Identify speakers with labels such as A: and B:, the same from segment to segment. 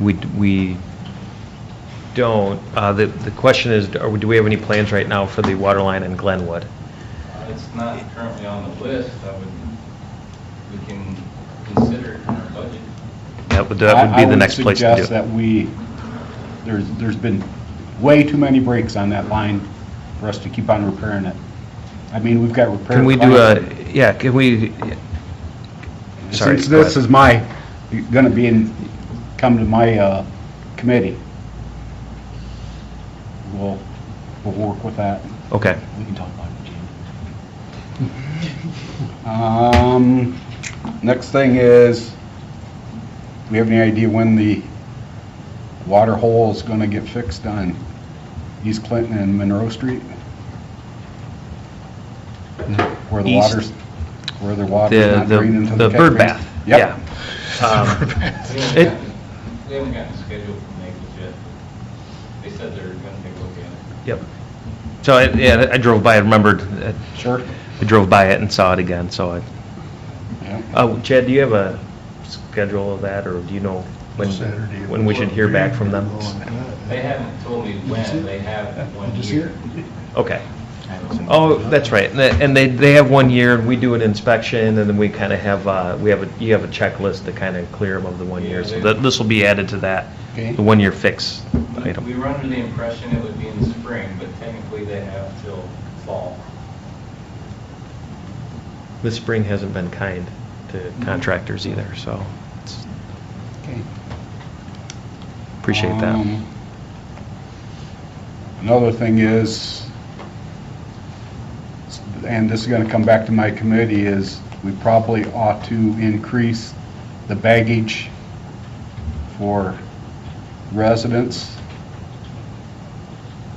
A: We, we don't. Uh, The, the question is, are we- do we have any plans right now for the water line in Glenwood?
B: It's not currently on the list, I would, we can consider it in our budget.
A: That would, that would be the next place to do.
C: I would suggest that we, there's, there's been way too many breaks on that line for us to keep on repairing it. I mean, we've got repair.
A: Can we do a,
C: plans.
A: yeah, can we, sorry.
C: Since
A: go
C: this
A: ahead.
C: is my, gonna be in, come to my, uh, committee, we'll, we'll work with that.
A: Okay.
C: We can talk about it, Um, next thing is, do we have any idea when the water hole is gonna get fixed on East Clinton and Monroe Street? Where the
A: East-
C: water's, where the water's
A: The,
C: not draining
A: the
C: into
A: the
C: the
A: bird
C: catch
A: bath,
C: basin?
A: yeah.
C: Yep.
A: Um,
B: We haven't
A: It-
B: gotten- We haven't gotten a schedule from Naples yet. They said they're gonna take a look at
A: Yep. So, I- yeah, I drove by, I remembered, uh,
C: Sure.
A: I drove by it and saw it again, so I,
C: Yeah.
A: oh, Chad, do you have a schedule of that, or do you know when,
D: Saturday.
A: when we should hear back from them?
B: it. They haven't told me when, they have one
D: Just
B: year.
D: here?
A: Okay. Oh, that's right, and they- and they, they have one year, and we do an inspection, and then we kind of have, uh, we have, a you have a checklist to kind of clear them of the one year, so
B: Yeah, they-
A: that, this will be added to that,
C: Okay.
A: the one-year fix item.
B: We were under the impression it would be in the spring, but technically they have till fall.
A: This spring hasn't been kind to
C: Mm-hmm.
A: contractors either, so it's-
C: Okay.
A: appreciate that.
C: Um, Another thing is, and this is going to come back to my committee, is we probably ought to increase the baggage for residents.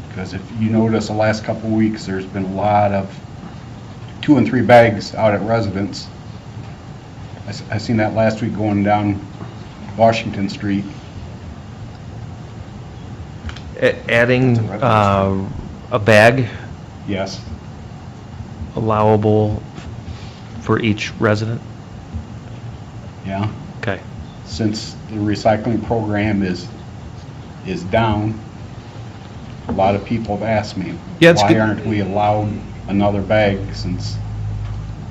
C: Because if you notice, the last couple of weeks, there's been a lot of two and three bags out at residents. I s- I seen that last week going down Washington Street.
A: A- Adding
C: It's a revenue
A: uh, a bag
C: Yes.
A: allowable for each resident?
C: Yeah,
A: Okay,
C: since the recycling program is, is down, a lot of people have asked me,
A: Yeah, it's
C: why
A: good-
C: aren't we allowed another bag since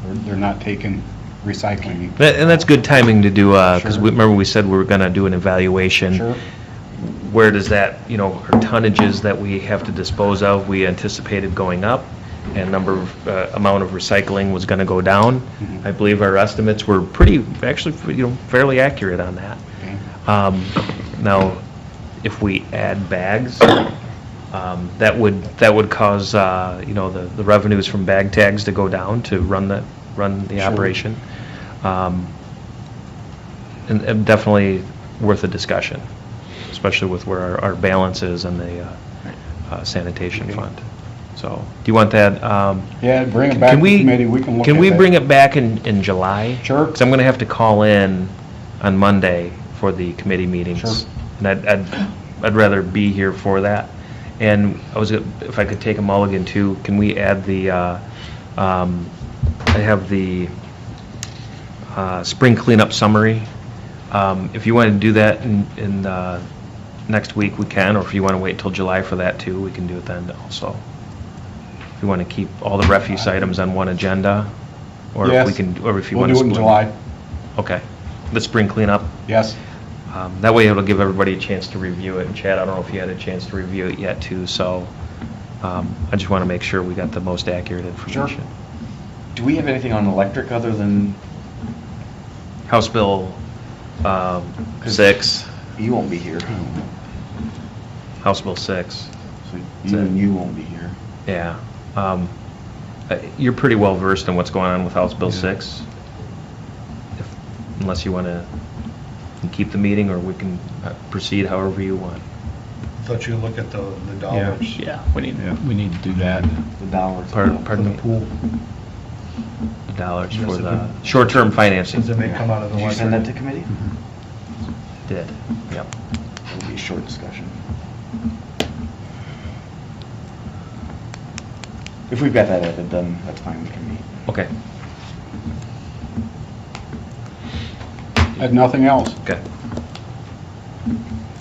C: they're, they're not taking recycling?
A: That- and that's good timing to do, because
C: Sure.
A: remember we said we were going to do an evaluation.
C: Sure,
A: where does that, you know, our tonnages that we have to dispose of, we anticipated going up, and number, of, uh, amount of recycling was going to go down.
C: Mhm.
A: I believe our estimates were pretty, actually, you know, fairly accurate on that.
C: okay,
A: Um, Now, if we add bags, um, that would, that would cause, uh, you know, the the revenues from bag tags to go down to run the, run the
C: Sure.
A: operation. Um, And and definitely worth a discussion, especially with where our- our balance is in the uh, uh, sanitation fund. So, do you want that? um,
C: yeah, bring it
A: can-
C: back to
A: can we-
C: committee, we can look at it.
A: Can we bring it back in, in July?
C: Sure.
A: Because I'm going to have to call in on Monday for the committee meetings.
C: Sure.
A: And I'd, I'd, I'd rather be here for that. And I was, gonna- if I could take a mulligan too, can we add the, uh, um, I have the uh, spring cleanup summary. Um, If you want to do that in, in, uh, next week, we can, or if you want to wait till July for that too, we can do it then also. If you want to keep all the refuse items on one agenda, or if we
C: Yes.
A: can, or if you want to.
C: We'll do it in July,
A: Okay. The spring cleanup.
C: yes.
A: Um, That way it'll give everybody a chance to review it. And Chad, I don't know if you had a chance to review it yet too, so um, I just want to make sure we got the most accurate information.
E: Do we have anything on electric other than,
A: House Bill um, 6,
E: you won't be here,
A: House Bill 6,
E: so even you won't be here.
A: yeah. Um, uh, You're pretty well versed in what's going on with House Bill 6? If- Unless you want to keep the meeting, or we can uh, proceed however you want.
D: Thought you look at the, the dollars.
A: Yeah.
F: We need, we need to do that.
E: The dollars.
A: Pardon,
D: For
A: pardon
D: the
A: me?
D: pool,
A: the dollars
D: Yes,
A: for
D: it
A: the
D: would.
A: short-term financing.
D: since they may come out of the.
E: Did you send that to committee?
A: Did, yep.
E: It'll be a short discussion. If we've got that added, then that's fine with me.
A: Okay,
C: Had nothing else.
A: okay.